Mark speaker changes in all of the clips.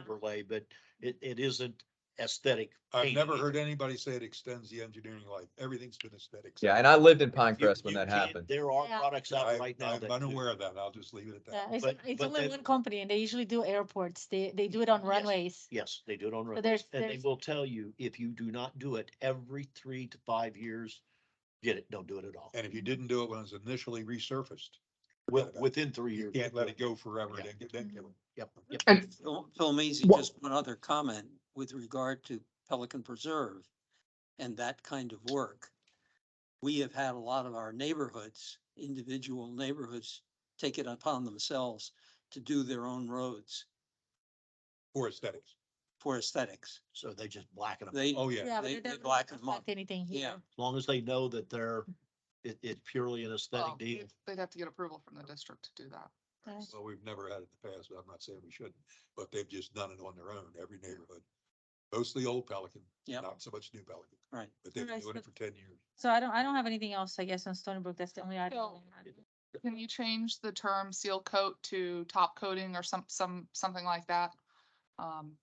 Speaker 1: overlay, but it, it isn't aesthetic.
Speaker 2: I've
Speaker 1: paint.
Speaker 2: never heard anybody say it extends the engineering life. Everything's been aesthetics.
Speaker 3: Yeah, and I lived in
Speaker 1: You-
Speaker 3: Pinecrest when
Speaker 1: you
Speaker 3: that
Speaker 1: can't-
Speaker 3: happened.
Speaker 1: There are
Speaker 4: Yeah.
Speaker 1: products out
Speaker 2: I,
Speaker 1: right now
Speaker 2: I'm
Speaker 1: that. do.
Speaker 2: unaware of that. I'll just leave it at
Speaker 4: Yeah,
Speaker 2: that.
Speaker 4: it's,
Speaker 1: But-
Speaker 4: it's
Speaker 1: but
Speaker 4: only
Speaker 1: that-
Speaker 4: one company and they usually do airports. They, they do it on
Speaker 1: Yes.
Speaker 4: runways.
Speaker 1: Yes, they do it on road.
Speaker 4: But there's,
Speaker 1: And they
Speaker 4: there's,
Speaker 1: will tell you, if you do not do it every three to five years, get it, don't do it at all.
Speaker 2: And if you didn't do it when it was initially resurfaced,
Speaker 1: Wi-
Speaker 2: about it.
Speaker 1: Within three
Speaker 2: you
Speaker 1: years.
Speaker 2: can't let it go forever.
Speaker 1: Yeah.
Speaker 2: Then get, then
Speaker 4: Mm-hmm.
Speaker 2: get it.
Speaker 1: Yep, yep.
Speaker 5: And-
Speaker 6: Phil Phil Maisy,
Speaker 5: Wha-
Speaker 6: just one other comment with regard to Pelican Preserve and that kind of work. We have had a lot of our neighborhoods, individual neighborhoods, take it upon themselves to do their own roads
Speaker 2: for aesthetics.
Speaker 6: for aesthetics.
Speaker 1: So they just blacken them.
Speaker 6: They,
Speaker 2: Oh, yeah.
Speaker 4: yeah, but
Speaker 6: they-
Speaker 4: it
Speaker 6: they
Speaker 4: doesn't
Speaker 6: black 'em up.
Speaker 4: affect anything
Speaker 6: Yeah.
Speaker 4: here.
Speaker 1: As long as they know that they're, it, it's purely an
Speaker 5: Well,
Speaker 4: Oh.
Speaker 1: aesthetic deal.
Speaker 5: they'd- They'd have to get approval from the district to do that.
Speaker 4: Uh,
Speaker 2: Well, we've never had it in the past, but I'm not saying we shouldn't, but they've just done it on their own, every neighborhood. Mostly old Pelican,
Speaker 6: Yep.
Speaker 2: not so much new Pelican,
Speaker 6: right.
Speaker 2: but they've been
Speaker 4: Right,
Speaker 2: doing it for
Speaker 4: so-
Speaker 2: ten years.
Speaker 4: So I don't, I don't have anything else, I guess, on Stony Brook. That's the only item.
Speaker 5: So-
Speaker 4: I had.
Speaker 5: Can you change the term seal coat to top coating or some, some, something like that? Um,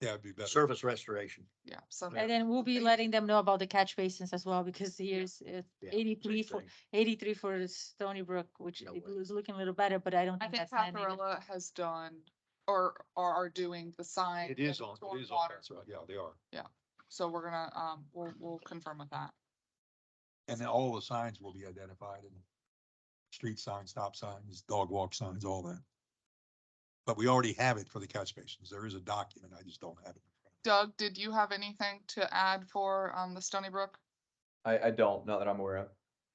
Speaker 2: Yeah, it'd be better.
Speaker 1: Surface restoration.
Speaker 5: yeah, some.
Speaker 4: And then we'll be
Speaker 5: Okay.
Speaker 4: letting them know about the catch basins as well, because here's uh,
Speaker 1: Yeah,
Speaker 4: eighty-three for,
Speaker 1: Same thing.
Speaker 4: eighty-three for Stony Brook, which
Speaker 1: No
Speaker 4: it
Speaker 1: way.
Speaker 4: was looking a little better, but I don't
Speaker 5: I
Speaker 4: think
Speaker 5: think
Speaker 4: that's. landing.
Speaker 5: Paparilla has done, or, or are doing the sign.
Speaker 2: It is
Speaker 5: and
Speaker 2: on, it is on,
Speaker 5: stormwater,
Speaker 2: that's right, yeah, they are.
Speaker 5: So we're gonna, um, we'll, we'll confirm with that.
Speaker 2: And then all the signs will be identified and street signs, stop signs, dog walk signs, all that. But we already have it for the catch basins. There is a document. I just don't have it.
Speaker 5: Doug, did you have anything to add for, um, the Stony Brook?
Speaker 3: I, I don't, not that I'm aware of.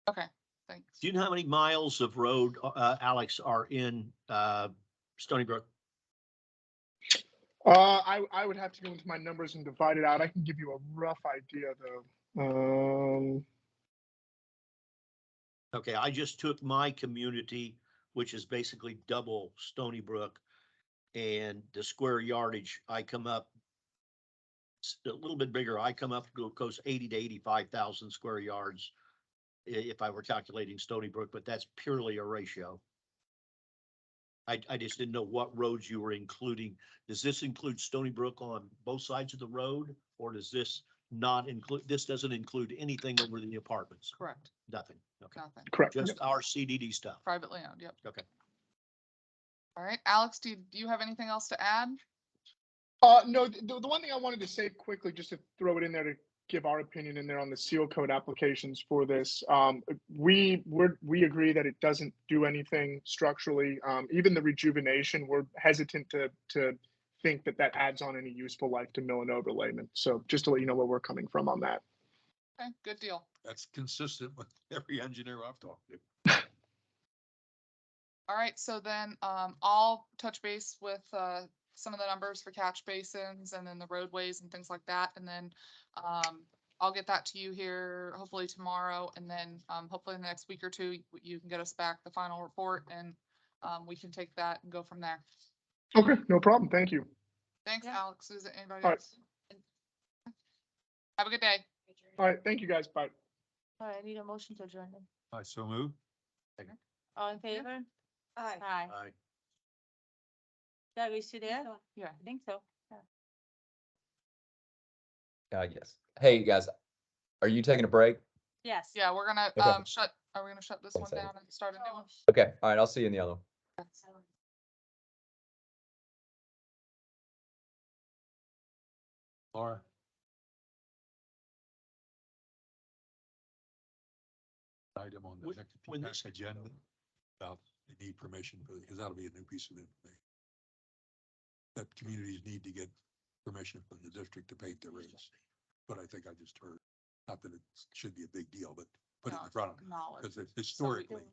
Speaker 5: Okay, thanks.
Speaker 1: Do you know how many miles of road, uh, Alex, are in, uh, Stony Brook?
Speaker 7: Uh, I, I would have to go into my numbers and divide it out. I can give you a rough idea though. Um,
Speaker 1: Okay, I just took my community, which is basically double Stony Brook. And the square yardage, I come up. s- A little bit bigger, I come up, go- goes eighty to eighty-five thousand square yards. i- if I were calculating Stony Brook, but that's purely a ratio. I, I just didn't know what roads you were including. Does this include Stony Brook on both sides of the road? Or does this not include, this doesn't include anything over the apartments?
Speaker 5: Correct,
Speaker 1: Nothing, okay.
Speaker 5: nothing.
Speaker 7: correct.
Speaker 1: Just our CDD stuff.
Speaker 5: Privately owned, yep.
Speaker 1: Okay.
Speaker 5: All right, Alex, do you, do you have anything else to add?
Speaker 7: Uh, no, th- the, the one thing I wanted to say quickly, just to throw it in there to give our opinion in there on the seal code applications for this. Um, we, we're, we agree that it doesn't do anything structurally. Um, even the rejuvenation, we're hesitant to, to think that that adds on any useful life to mill and overlayment. So just to let you know where we're coming from on that.
Speaker 5: Okay, good deal.
Speaker 2: That's consistent with every engineer I've talked to.
Speaker 5: All right, so then um I'll touch base with uh some of the numbers for catch basins and then the roadways and things like that, and then um I'll get that to you here hopefully tomorrow, and then um hopefully in the next week or two, y- you can get us back the final report and um we can take that and go from there.
Speaker 7: Okay, no problem. Thank you.
Speaker 5: Thanks,
Speaker 4: Yeah.
Speaker 5: Alex. Is it anybody
Speaker 7: All right.
Speaker 5: else? Have a good day.
Speaker 7: All right. Thank you guys. Bye.
Speaker 4: All right, I need a motion to adjourn. then.
Speaker 2: I so move.
Speaker 4: All in
Speaker 5: Yeah.
Speaker 4: favor?
Speaker 8: Aye.
Speaker 4: Aye.
Speaker 1: Aye.
Speaker 4: Doug, is you there? I
Speaker 5: Yeah.
Speaker 4: think so.
Speaker 3: Uh, yes. Hey, you guys, are you taking a break?
Speaker 4: Yes.
Speaker 5: Yeah, we're gonna
Speaker 3: Okay.
Speaker 5: um shut, are we gonna shut this
Speaker 3: One
Speaker 5: one
Speaker 3: second.
Speaker 5: down and start a new
Speaker 4: Oh,
Speaker 5: one?
Speaker 3: Okay, all right, I'll see you in the other one.
Speaker 2: Laura? Item on the
Speaker 1: When-
Speaker 2: next
Speaker 1: when this-
Speaker 2: next agenda about the need permission, for because that'll be a new piece of information. That communities need to get permission from the district to paint their roofs. But I think I just heard, not that it should be a big deal, but put it
Speaker 5: No,
Speaker 2: in front of them,
Speaker 5: Knowledge.
Speaker 2: because historically,